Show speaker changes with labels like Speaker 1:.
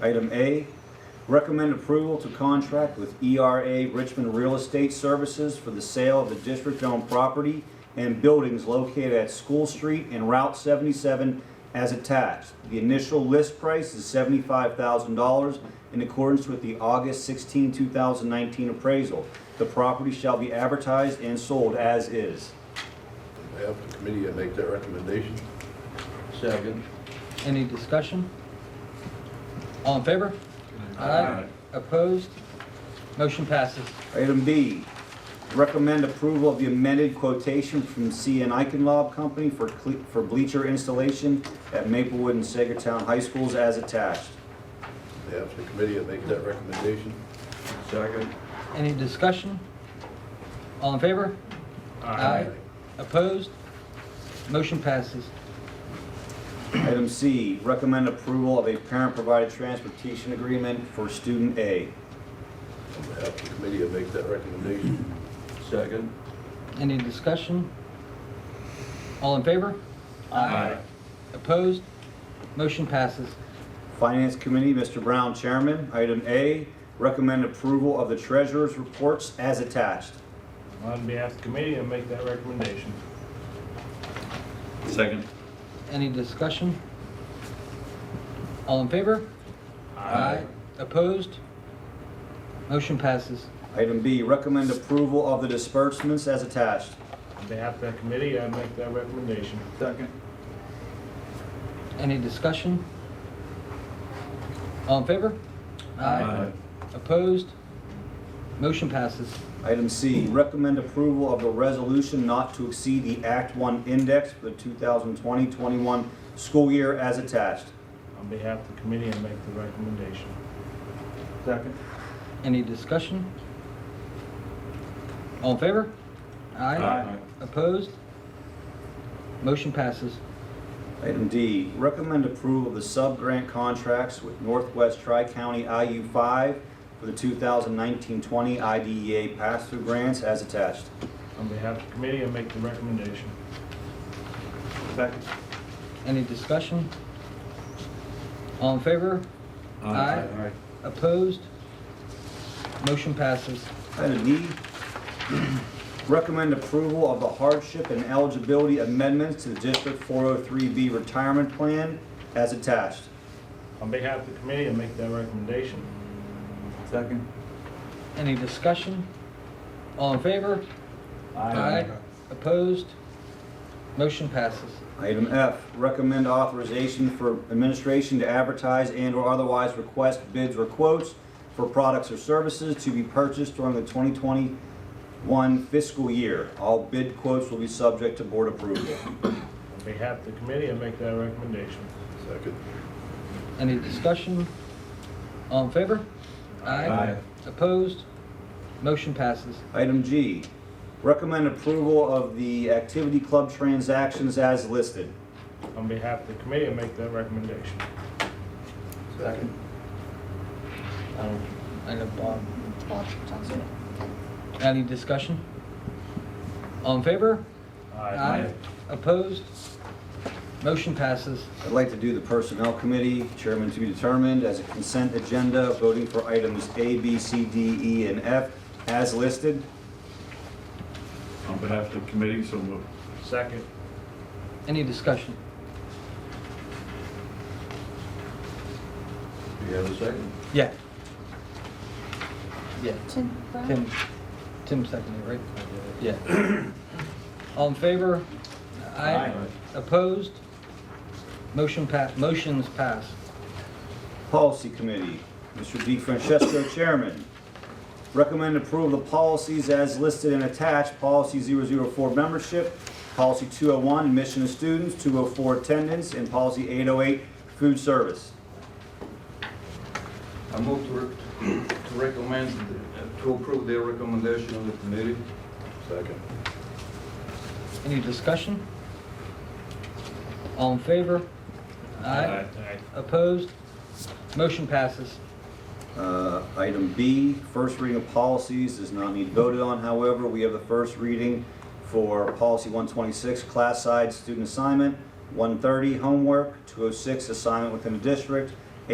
Speaker 1: Item A, recommend approval to contract with ERA Richmond Real Estate Services for the sale of the district-owned property and buildings located at School Street and Route 77 as attached. The initial list price is $75,000 in accordance with the August 16, 2019 appraisal. The property shall be advertised and sold as is.
Speaker 2: On behalf of the committee, I make that recommendation.
Speaker 3: Second.
Speaker 4: Any discussion? All in favor? Aye. Opposed? Motion passes.
Speaker 1: Item B, recommend approval of the amended quotation from C and Eichenlob Company for cle- for bleacher installation at Maplewood and Sagertown High Schools as attached.
Speaker 2: On behalf of the committee, I make that recommendation.
Speaker 3: Second.
Speaker 4: Any discussion? All in favor? Opposed? Motion passes.
Speaker 1: Item C, recommend approval of a parent-provided transportation agreement for student A.
Speaker 2: On behalf of the committee, I make that recommendation.
Speaker 3: Second.
Speaker 4: Any discussion? All in favor?
Speaker 3: Aye.
Speaker 4: Opposed? Motion passes.
Speaker 1: Finance Committee, Mr. Brown, Chairman. Item A, recommend approval of the treasurer's reports as attached.
Speaker 5: On behalf of the committee, I make that recommendation.
Speaker 3: Second.
Speaker 4: Any discussion? All in favor? Opposed? Motion passes.
Speaker 1: Item B, recommend approval of the disbursements as attached.
Speaker 5: On behalf of the committee, I make that recommendation.
Speaker 3: Second.
Speaker 4: Any discussion? All in favor? Opposed? Motion passes.
Speaker 1: Item C, recommend approval of the resolution not to exceed the Act One index for the 2020-21 school year as attached.
Speaker 5: On behalf of the committee, I make the recommendation.
Speaker 3: Second.
Speaker 4: Any discussion? All in favor? Opposed? Motion passes.
Speaker 1: Item D, recommend approval of the sub-grant contracts with Northwest Tri-County IU5 for the 2019-20 IDEA E pass-through grants as attached.
Speaker 5: On behalf of the committee, I make the recommendation.
Speaker 3: Second.
Speaker 4: Any discussion? All in favor? Aye. Opposed? Motion passes.
Speaker 1: Item E, recommend approval of the hardship and eligibility amendments to the District 403B retirement plan as attached.
Speaker 5: On behalf of the committee, I make that recommendation.
Speaker 3: Second.
Speaker 4: Any discussion? All in favor? Opposed? Motion passes.
Speaker 1: Item F, recommend authorization for administration to advertise and/or otherwise request bids or quotes for products or services to be purchased during the 2021 fiscal year. All bid quotes will be subject to board approval.
Speaker 5: On behalf of the committee, I make that recommendation.
Speaker 2: Second.
Speaker 4: Any discussion? All in favor?
Speaker 3: Aye.
Speaker 4: Opposed? Motion passes.
Speaker 1: Item G, recommend approval of the activity club transactions as listed.
Speaker 5: On behalf of the committee, I make that recommendation.
Speaker 2: Second.
Speaker 4: Um, I know Bob.
Speaker 6: Bob Johnson.
Speaker 4: um, Any discussion? All in favor? Opposed? Motion passes.
Speaker 1: I'd like to do the Personnel Committee, Chairman to be determined, as a consent agenda, voting for items A, B, C, D, E, and F as listed.
Speaker 7: On behalf of the committee, so moved.
Speaker 5: Second.
Speaker 4: Any discussion?
Speaker 3: Do you have a second?
Speaker 4: Yeah. Yeah,
Speaker 6: Tim Brown.
Speaker 4: Tim, Tim seconded, right? Yeah. All in favor?
Speaker 3: Aye.
Speaker 4: Opposed? Motion pa, motions pass.
Speaker 1: Policy Committee, Mr. D. Francesco, Chairman. Recommend approval of the policies as listed and attached, Policy 004 Membership, Policy 201 Admission of Students, 204 Attendance, and Policy 808 Food Service.
Speaker 3: I move to re- to recommend, uh, to approve the recommendation of the committee.
Speaker 2: Second.
Speaker 4: Any discussion? All in favor? Aye.
Speaker 5: Aye.
Speaker 4: Opposed? Motion passes.
Speaker 1: Uh, Item B, first reading of policies does not need voted on, however, we have the first reading for Policy 126, Class Side Student oh Assignment, 130, Homework, 206, Assignment Within the District,